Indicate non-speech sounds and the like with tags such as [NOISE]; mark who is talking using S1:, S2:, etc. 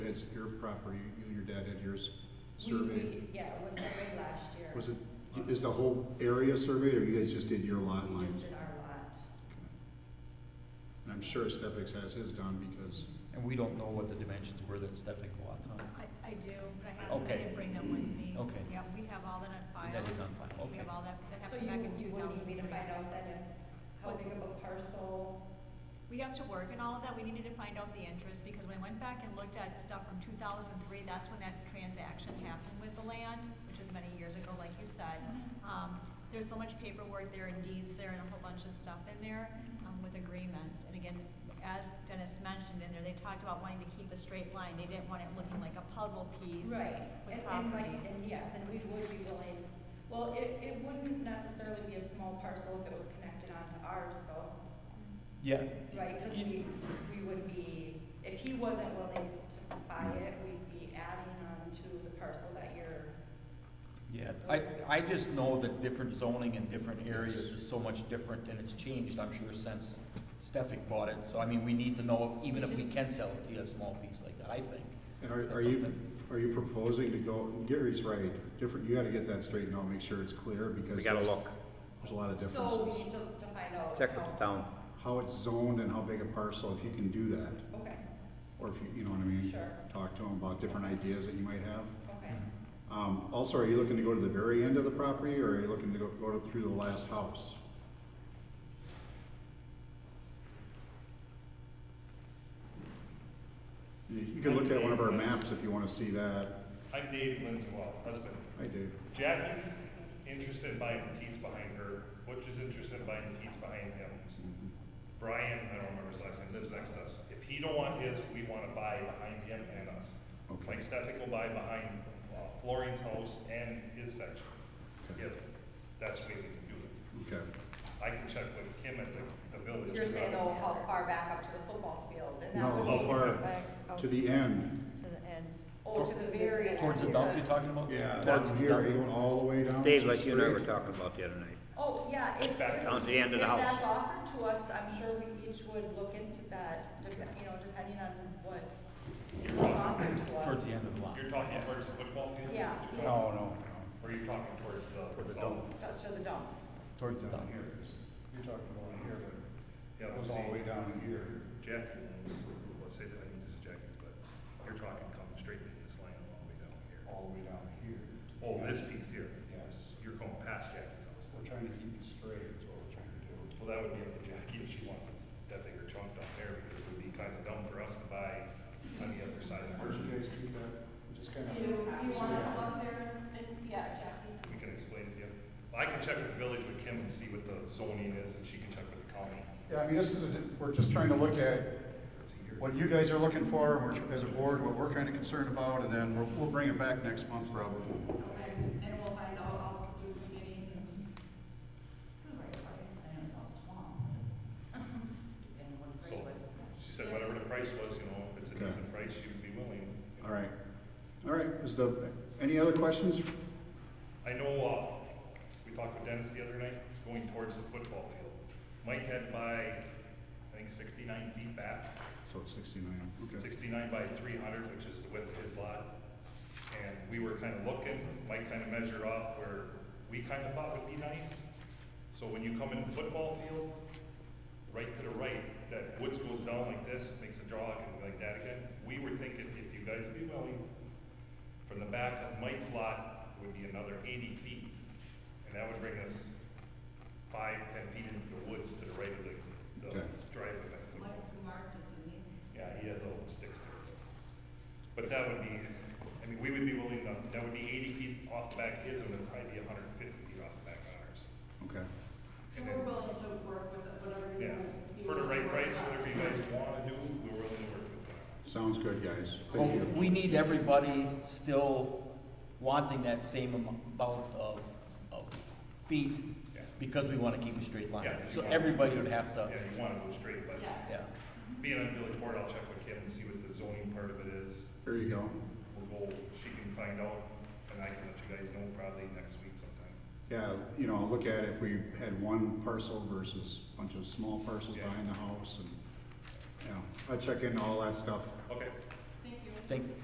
S1: it's your property, you and your dad had yours
S2: We-
S1: surveyed?
S2: we- Yeah, it was surveyed last year.
S1: Was it, is the whole area surveyed, or you guys just did your lot
S2: We
S1: lines?
S2: just did our lot.
S1: Okay. And I'm sure Stefan has his done because,
S3: And we don't know what the dimensions were that Stefan bought, huh?
S4: I, I do, but I haven't, I
S3: Okay.
S4: didn't bring them with me.
S3: Okay.
S4: Yeah, we have all that on file.
S3: That is on file,
S4: We
S3: okay.
S4: have all that, because that
S2: So
S4: happened
S2: you
S4: back in
S2: would
S4: two
S2: need
S4: thousand
S2: me
S4: three.
S2: to find out then if, how
S4: What?
S2: big of a parcel,
S4: We have to work and all of that, we needed to find out the interest, because when I went back and looked at stuff from two thousand three, that's when that transaction happened with the land, which is many years ago, like you said.
S2: Mm-hmm.
S4: Um, there's so much paperwork there and deeds there and a whole bunch of stuff in there,
S2: Mm-hmm.
S4: um, with agreements. And again, as Dennis mentioned in there, they talked about wanting to keep a straight line, they didn't want it looking like a puzzle piece.
S2: Right,
S4: with
S2: and, and like,
S4: properties.
S2: and yes, and we would be willing, well, it, it wouldn't necessarily be a small parcel if it was connected onto ours though,
S3: Yeah.
S2: right? Cause
S3: You-
S2: we, we would be, if he wasn't willing to buy it, we'd be adding on to the parcel that you're,
S3: Yeah, I, I just know that different zoning in different areas is so much different, and it's changed, I'm sure, since Stefan bought it. So I mean, we need to know, even if we can sell it to you, a small piece like that, I think.
S1: and are, are
S3: That's
S1: you,
S3: something.
S1: are you proposing to go, Gary's right, different, you gotta get that straightened out, make sure it's clear because.
S5: We gotta
S1: there's-
S5: look,
S1: There's a lot of
S2: so we
S1: differences.
S2: need to, to find out.
S5: check with the
S2: how-
S5: town.
S1: How it's zoned and how big a parcel, if you can do that,
S2: Okay,
S1: or if you, you know what I mean?
S2: Sure.
S1: Talk to him about different ideas that you might have.
S2: okay.
S1: Um, also, are you looking to go to the very end of the property, or are you looking to go, go to- through the last house? You you can look at one of our maps if you wanna see that.
S6: I'm Dave Lindswell, husband.
S1: I do.
S6: Jackie's interested in buying the piece behind her. Butch is interested in buying the piece behind him. Brian, I don't remember his last name, lives next to us. If he don't want his, we want to buy behind him and us.
S1: Okay.
S6: Like Stefan will buy behind uh, Florian's house and his section, if that's the way we can do it.
S1: Okay.
S6: I can check with Kim at the, the village.
S2: You're saying though, how far back up to the football field and that.
S1: No,
S2: would
S1: how
S2: be-
S1: far,
S7: Back out
S1: to the end?
S7: Oh, to the end.
S2: Oh, to the very end.
S3: Towards the dump you're talking about?
S1: Yeah,
S3: Towards
S1: down
S3: the
S1: here,
S3: dump.
S1: are you going all the way down?
S5: Dave,
S1: so
S5: like you and I were
S1: straight?
S5: talking about the other night.
S2: Oh, yeah, if, if, if
S6: Back
S5: down to the end of the house.
S2: that's offered to us, I'm sure we each would look into that, dep- you know, depending on what
S6: You're
S2: was
S6: talking,
S2: offered to us.
S3: Towards the end of the lot.
S6: you're talking towards the football field?
S2: Yeah.
S3: No, no,
S6: Or you're talking towards the.
S5: Towards the
S6: south?
S5: dump.
S2: That's to the dump.
S3: towards the dump.
S1: You're talking about here,
S6: Yeah,
S1: but it
S6: we'll
S1: goes all the
S6: see.
S1: way down to here.
S6: Jackie owns, let's say that I think this is Jackie's, but you're talking coming straight into this land all the way down here.
S1: All the way down here.
S6: Oh, this piece here,
S1: Yes.
S6: you're going past Jackie's house.
S1: We're trying to keep it straight, is what we're trying to do.
S6: Well, that would be up to Jackie if she wants that bigger chunk down there, because it would be kind of dumb for us to buy on the other side of the
S1: Where
S6: market.
S1: you guys keep that, just kind of.
S2: Do you, do you wanna come up there and, yeah, Jackie?
S6: We can explain it to you. I can check with the village with Kim and see what the zoning is, and she can check with the county.
S1: Yeah, I mean, this is, a we're just trying to look at
S6: It's a year.
S1: what you guys are looking for, and we're, as a board, what we're kind of concerned about, and then we'll, we'll bring it back next month probably.
S2: Okay, and we'll find out, I'll do any. [LAUGHS]
S6: So, she said whatever the price was, you know, if it's a
S1: Okay.
S6: decent price, she would be willing. you know.
S1: All right. All right, is the, any other questions?
S6: I know, uh, we talked with Dennis the other night, going towards the football field. Mike had by, I think sixty-nine feet back,
S1: So it's sixty-nine, okay.
S6: sixty-nine by three hundred, which is the width of his lot. And we were kind of looking, Mike kind of measured off where we kind of thought would be nice. So when you come in the football field, right to the right, that woods goes down like this, makes a jog and like that again. We were thinking, if you guys be willing, from the back of Mike's lot would be another eighty feet. And that would bring us five, ten feet into the woods to the right of the, the
S1: Okay.
S6: driveway by the football. Yeah, he has little sticks there. But that would be, I mean, we would be willing to, that would be eighty feet off the back of his, and then probably be hundred and fifty feet off the back of ours.
S1: Okay.
S6: And then,
S2: willing to work with whatever
S6: yeah, for the right price, whatever you guys wanna do, we're willing to work with that.
S1: Sounds good, guys.
S3: Well,
S1: Thank you.
S3: Oh, we need everybody still wanting that same amount of, of feet,
S6: Yeah.
S3: because we wanna keep a straight line.
S6: Yeah, 'cause you
S3: So
S6: want-
S3: everybody would have to,
S6: Yeah, you wanna go straight, but
S3: yeah.
S6: being on village board, I'll check with Kim and see what the zoning part of it is.
S1: There you go.
S6: We'll go, she can find out, and I can let you guys know probably next week sometime.
S1: Yeah, you know, look at if we had one parcel versus a bunch of small parcels
S6: Yeah.
S1: behind the house and, you know, I check into all that stuff
S6: Okay.
S3: Think,